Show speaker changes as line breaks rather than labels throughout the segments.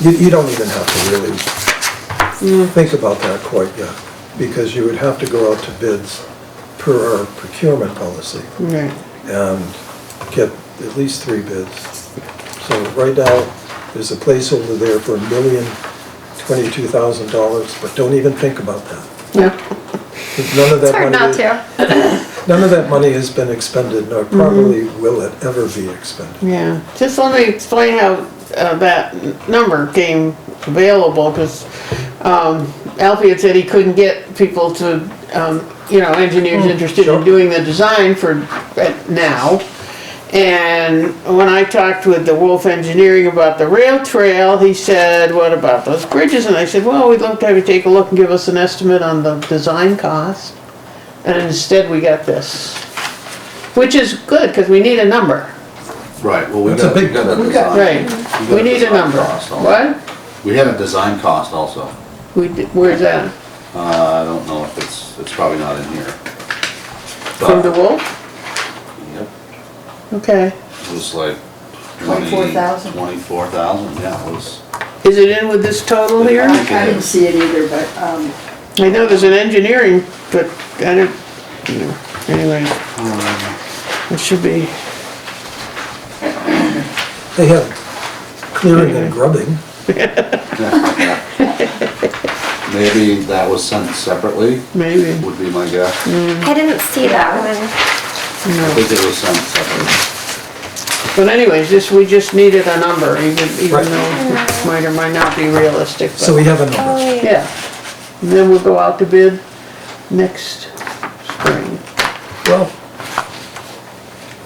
You, you don't even have to really think about that quite yet, because you would have to go out to bids per our procurement policy
Right.
and get at least three bids. So right now, there's a placeholder there for a million twenty-two thousand dollars, but don't even think about that.
Yeah,
'Cause None of
It's
that
hard
money.
not to. Mm-hmm.
None of that money has been expended, nor probably will it ever be expended.
yeah. Just let me explain how uh, that n- number came available, because Alfie had said he couldn't get people to, um, you know, engineers interested
sure.
in doing the design for uh, now. And when I talked with the Wolf Engineering about the rail trail, he said, what about those bridges? And I said, well, we'd love to have you take a look and give us an estimate on the design cost. And instead, we got this, which is good, because we need a number.
Right, well, we
That's a
got, we
big-
got a
we
design.
Right,
got
we need a
design
number.
cost also.
What?
We had a design cost also.
We, did- where's that?
Uh, I don't know if it's, it's probably not in here.
From the
But,
Wolf?
Yep,
Okay.
it was like twenty.
24,000.
Twenty-four thousand, yeah, it was.
Is it in with this total here?
I I didn't see it either, but, um,
I know there's an engineering, but I don't, you know, anyway. It should be,
They have clearing and grubbing.
Maybe that was sent separately,
maybe,
would be my guess. I
I didn't see that one.
no.
think it was sent separately.
But anyways, just, we just needed a number, even, even
Right.
though it might or might not be realistic,
So we
but,
have a number.
Oh, yeah. And then we'll go out to bid next spring.
Well,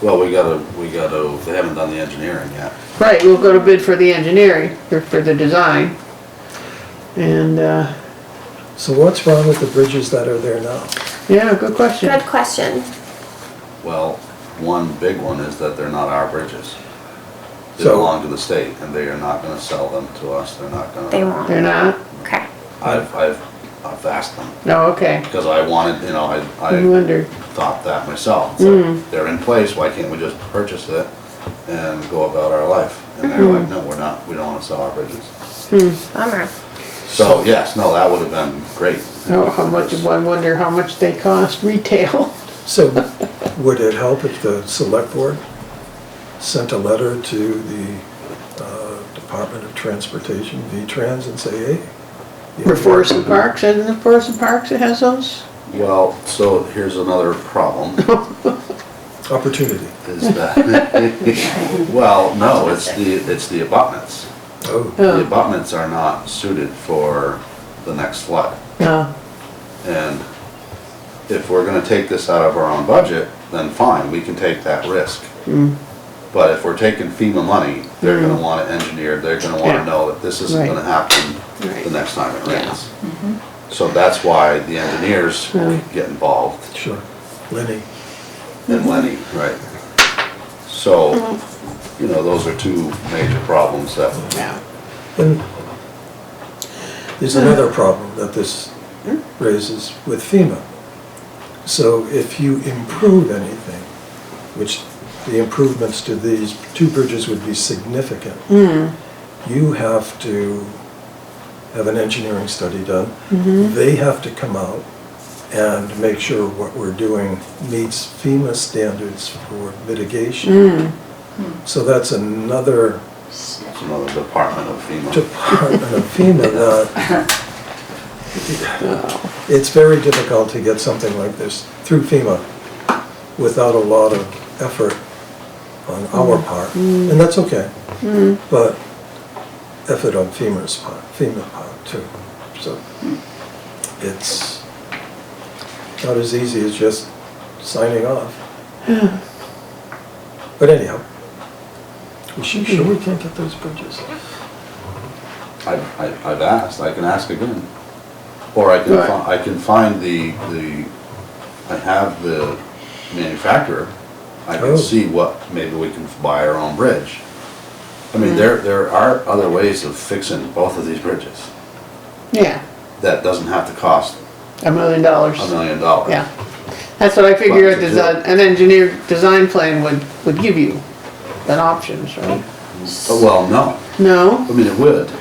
Well, we gotta, we gotta, they haven't done the engineering yet.
Right, we'll go to bid for the engineering, or for the design. And, uh,
so what's wrong with the bridges that are there now?
yeah, good question.
Good question.
Well, one big one is that they're not our bridges. They
So-
belong to the state, and they are not gonna sell them to us, they're not gonna.
They won't.
They're not?
Okay.
I've, I've, I've asked them,
No, okay.
because I wanted, you know, I,
I
I
wondered.
thought that myself. So They're in place, why can't we just purchase it and go about our life? And they're like, no, we're not, we don't wanna sell our bridges.
Bummer.
So, yes, no, that would've been great.
Oh, how much, I wonder how much they cost retail.
So would it help if the select board sent a letter to the uh, Department of Transportation, V-Trans, and say, hey? you
For
know,
Forest and Parks, isn't it Forest and Parks that has those?
Well, so here's another problem.
Opportunity.
Is that, well, no, it's the, it's the abutments.
Oh,
The
Oh,
abutments are not suited for the next flood.
no,
And if we're gonna take this out of our own budget, then fine, we can take that risk.
Hmm.
But if we're taking FEMA money, they're gonna want it engineered, they're gonna
Yeah.
wanna know that this isn't
Right.
gonna happen the
Right.
next time it
Yeah.
rains. So that's why the engineers get involved.
sure. Lenny,
Mm-hmm.
and Lenny, right? So,
Mm-hmm.
you know, those are two major problems that,
no.
And there's another problem that this raises with FEMA. So if you improve anything, which the improvements to these two bridges would be significant, you have to have an engineering study done. They have to come out and make sure what we're doing meets FEMA standards for mitigation. So that's another
it's another department of FEMA.
Department of FEMA that it's very difficult to get something like this through FEMA without a lot of effort on our part, and that's okay. But effort on FEMA's part, FEMA part too. So it's not as easy as just signing off. But anyhow, is she sure we can't get those bridges?
I, I, I've asked, I can ask again. Or I can,
Right.
fi- I can find the, the, I have the manufacturer. I
Oh.
can see what, maybe we can buy our own bridge. I mean, there, there are other ways of fixing both of these bridges
Yeah,
that doesn't have to cost
a million dollars.
a million dollars.
Yeah. That's what I figured
Lots to do.
desi- an engineer design plan would, would give you, an options, right?
But, Well, no,
No?
I mean, it would.